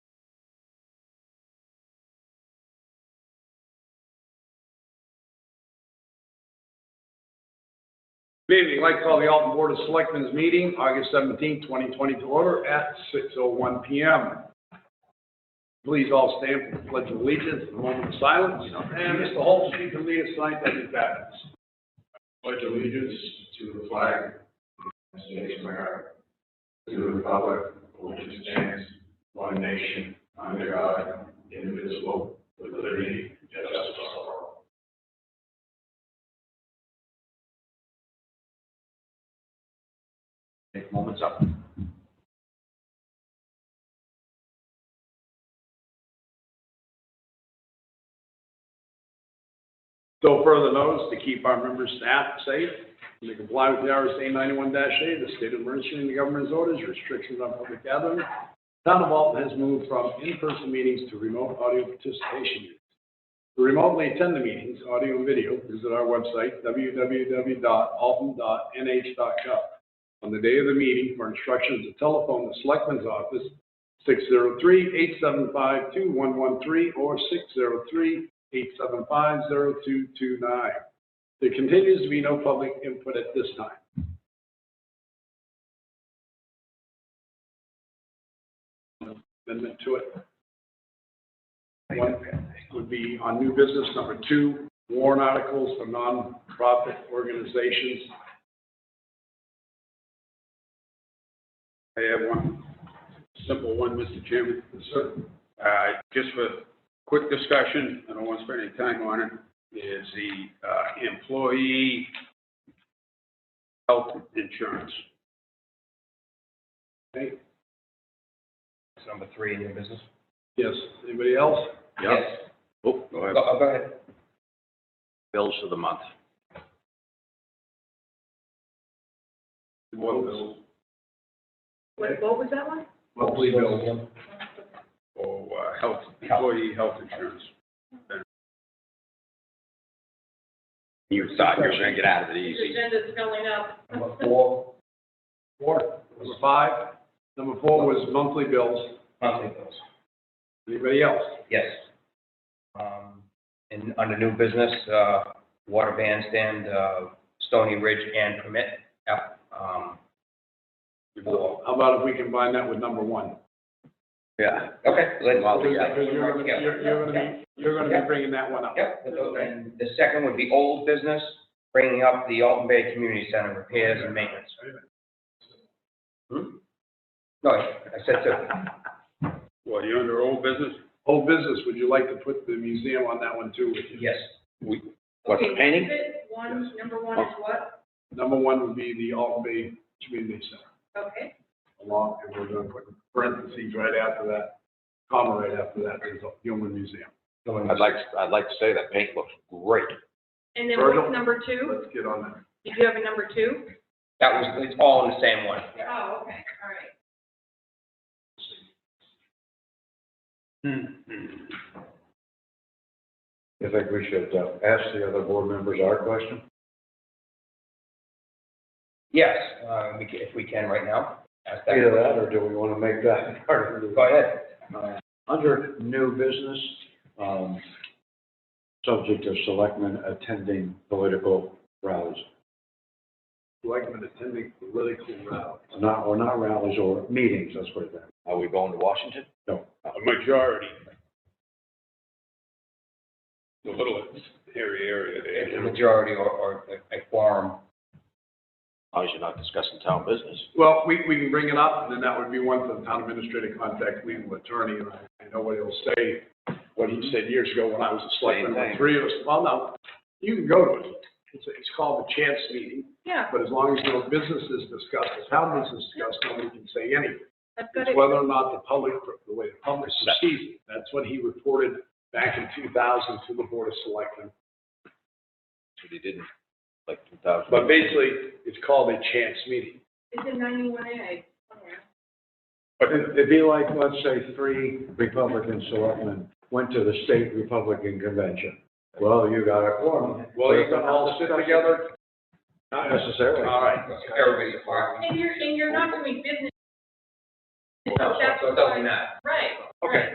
Good evening, I'd like to call the Alton Board of Selectmen's meeting, August seventeenth, twenty twenty to order at six oh one P M. Please all stand for the pledge of allegiance, a moment of silence, and Mr. Holmes, if you can lead us tonight, that'd be fabulous. pledge allegiance to the flag of the United States of America, to the republic for which it stands, one nation, under God, indivisible, with liberty and justice for all. Take moments up. So further notice, to keep our members staff safe, and to comply with the RSA ninety-one A, the state of emergency and the governor's orders, restrictions on public gathering, town of Alton has moved from in-person meetings to remote audio participation. units. To remotely attend the meetings, audio and video, visit our website, www.alton.nh.gov. On the day of the meeting, for instructions to telephone the selectman's office, 603-875-2113 or 603 875-0229. There continues to be no public input at this time. Amendment to it. One would be on new business, number two, warrant articles for nonprofit organizations. I have one, simple one, Mr. Chairman. Sir. Uh, Just for quick discussion, I don't want to spend any time on it, is the uh, employee health insurance. Okay, It's number three in your business? yes, anybody else? Yep. Oh, go ahead. go ahead. Bills for the month. Well, What, what was that one? Monthly bills. For uh, health, employee health insurance. You thought you were gonna get out of it easy. agenda's filling up. four. Four. Number five. Number four was monthly bills. monthly bills. Anybody else? Yes. Um, And under new business, uh, water bandstand, uh, Stony Ridge and permit, app- um, four. How about if we combine that with number one? Yeah. Okay, let's. Well, Because yeah. you're gonna, you're, you're gonna be, you're gonna be bringing that one up. Yep, and the second would be old business, bringing up the Alton Bay Community Center repairs and maintenance. Hmm? No, I said two. Well, you're under old business? Whole business, would you like to put the museum on that one too? Yes, What's Okay, painting? exhibit One, number one is what? Number one would be the Alton Bay Community Center, Okay, along, and we're gonna put parentheses right after that, comma right after that, is the Gilman Museum. no one- I'd like, I'd like to say that paint looks great. and then Virgil? what's number two? Let's get on that. Did you have a number two? that was, it's all in the same one. Oh, okay, all right. You think we should uh, ask the other board members our question? Yes, uh, we ca- if we can right now. ask that. Either that, or do we want to make that part of Go the, ahead. under new business, um, subject of selectmen attending political rallies, Selectmen attending political rally. not, or not rallies, or meetings, that's what it is. Are we going to Washington? A majority. The little hairy area It's there. a majority or, or a quorum. As you're not discussing town business. Well, we, we can bring it up, and then that would be one for the town administrator to contact legal attorney, and I- I know what he'll say, what he said years ago when I was a selectman, Same when thing. three of us, well, no, you can go to it. It's, it's called a chance meeting, Yeah, but as long as no business is discussed, the town business is discussed, nobody can say anything. I've got It's it. whether or not the public, the way the public perceives it. That's what he reported back in two thousand to the board of selectmen. That's what he did in like two thousand. But basically, it's called a chance meeting. It's in ninety-one A. But it- it'd be like, let's say, three Republican selectmen went to the state Republican convention. Well, you got a quorum. Well, you can all sit together? Not necessarily. All right. Everybody's part. And you're, and you're not doing business. So it doesn't matter. Right. Okay.